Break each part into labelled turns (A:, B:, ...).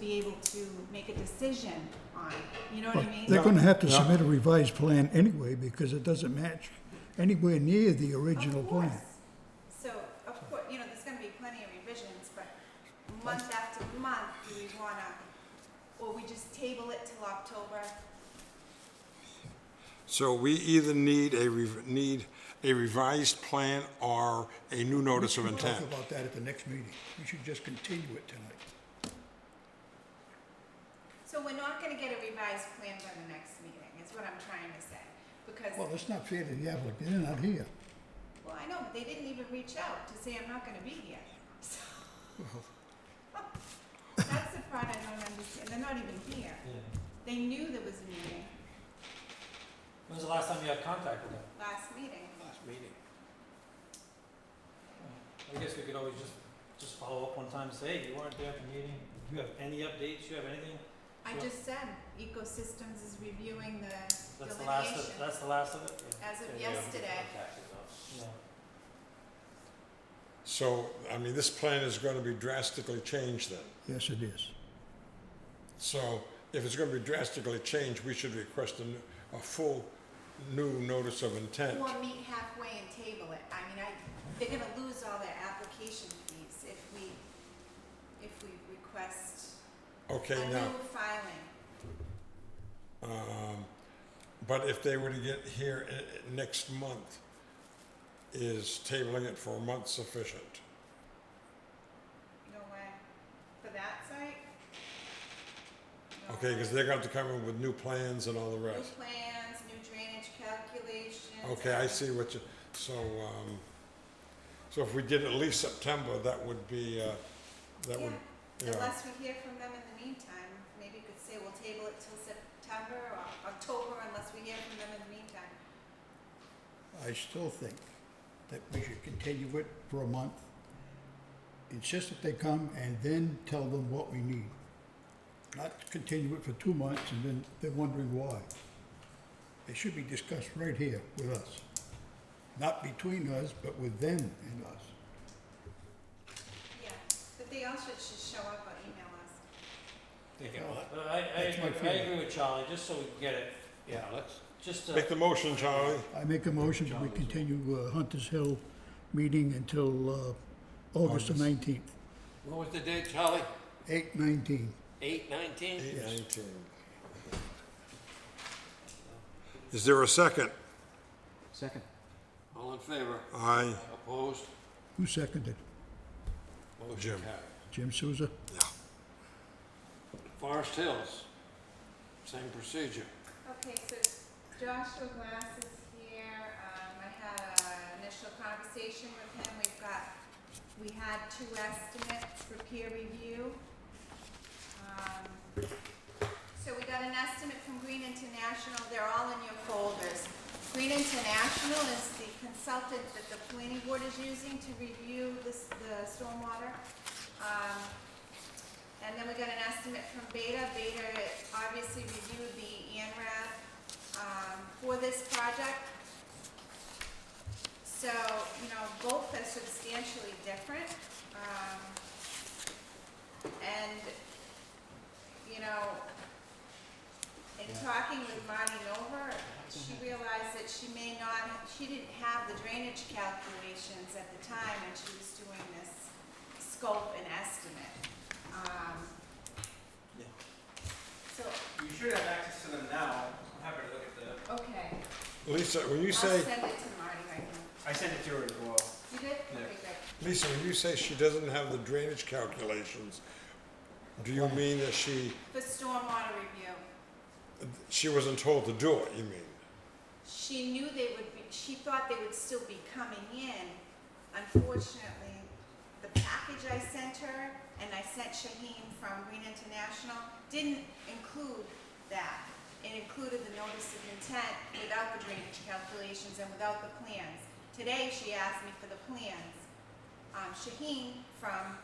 A: be able to make a decision on, you know what I mean?
B: They're gonna have to submit a revised plan anyway, because it doesn't match anywhere near the original
A: Of
B: plan.
A: course. So, of course, you know, there's gonna be plenty of revisions, but month after month, do we wanna, or we just table it till October?
C: So we either need a, rev- need a revised plan or a new notice of
B: We'll
C: intent.
B: Talk about that at the next meeting. We should just continue it tonight.
A: So we're not gonna get a revised plan by the next meeting, is what I'm trying to say, because,
B: Well, it's not fair to the applicant, they're not here.
A: well, I know, but they didn't even reach out to say I'm not gonna be here, so. That's the part I don't understand, they're not even here.
D: Yeah.
A: They knew there was a meeting
D: When's the last time you had contact with them?
A: last meeting.
D: Last meeting. I guess we could always just, just follow up one time, and say, hey, you weren't there at the meeting, do you have any updates, you have anything?
A: I
D: Sure.
A: just said ecosystems is reviewing the
D: That's the last, of-
A: delineation.
D: that's the last of it? Yeah.
A: As of
D: Yeah, yeah.
A: yesterday.
D: Yeah.
C: So, I mean, this plan is gonna be drastically changed then.
B: Yes, it is.
C: So if it's gonna be drastically changed, we should request a, n- a full new notice of intent.
A: Or meet halfway and table it. I mean, I, they're gonna lose all their application fees if we, if we request a
C: Okay, now,
A: new filing.
C: um, but if they were to get here i- i- next month, is tabling it for a month sufficient?
A: No way. For that site? No
C: Okay,
A: way.
C: because they're gonna have to come in with new plans and all the
A: New
C: rest.
A: plans, new drainage calculations.
C: Okay, I see what you, so, um, so if we did at least September, that would be, uh, that would,
A: Yeah,
C: yeah,
A: unless we hear from them in the meantime, maybe you could say we'll table it till September or October unless we hear from them in the meantime.
B: I still think that we should continue it for a month. Insist that they come and then tell them what we need. Not continue it for two months and then they're wondering why. It should be discussed right here with us. Not between us, but with them and us.
A: Yeah, but they also should show up or email us.
D: They
B: can- Well,
D: But I, I,
B: that's my
D: agree- I
B: feeling.
D: agree with Charlie, just so we can get it,
E: Yeah, let's,
D: just to,
C: make the motion, Charlie.
B: I make a motion that we continue uh, Hunter's Hill meeting until uh, August the
C: August.
B: nineteenth,
E: what was the date, Charlie?
B: eight nineteen.
E: Eight nineteen?
C: Eight nineteen. Is there a second?
F: Second.
E: All in favor?
C: Aye.
E: Opposed?
B: Who seconded?
C: Jim.
B: Jim Souza?
E: Forest Hills, same procedure.
A: Okay, so Joshua Glass is here, um, I had an initial conversation with him, we've got, we had two estimates for peer review. Um, So we got an estimate from Green International, they're all in your folders. Green International is the consultant that the planning board is using to review this, the stormwater. Um, and then we got an estimate from Beta. Beta obviously reviewed the ANRAD um, for this project. So, you know, both are substantially different. um, And, you know, in talking with Marty Nova, she realized that she may not, she didn't have the drainage calculations at the time when she was doing this scope and estimate. Um, So,
G: You should have access to them now. I'm happy to look at the.
A: okay,
C: Lisa, when you
A: I'll
C: say,
A: send it to Marty right now.
G: I sent it to her as well.
A: You did?
G: Yeah.
A: Okay, good.
C: Lisa, when you say she doesn't have the drainage calculations, do you mean that she,
A: For stormwater review,
C: she wasn't told to do it, you mean?
A: she knew they would be, she thought they would still be coming in. Unfortunately, the package I sent her and I sent Shaheen from Green International didn't include that. It included the notice of intent without the drainage calculations and without the plans. Today, she asked me for the plans. um, Shaheen from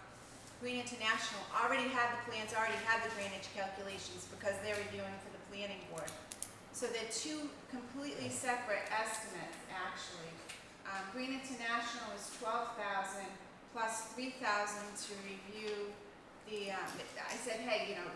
A: Green International already had the plans, already had the drainage calculations because they're reviewing for the planning board. So they're two completely separate estimates, actually. Um, Green International is twelve thousand plus three thousand to review the, um, I said, hey, you know,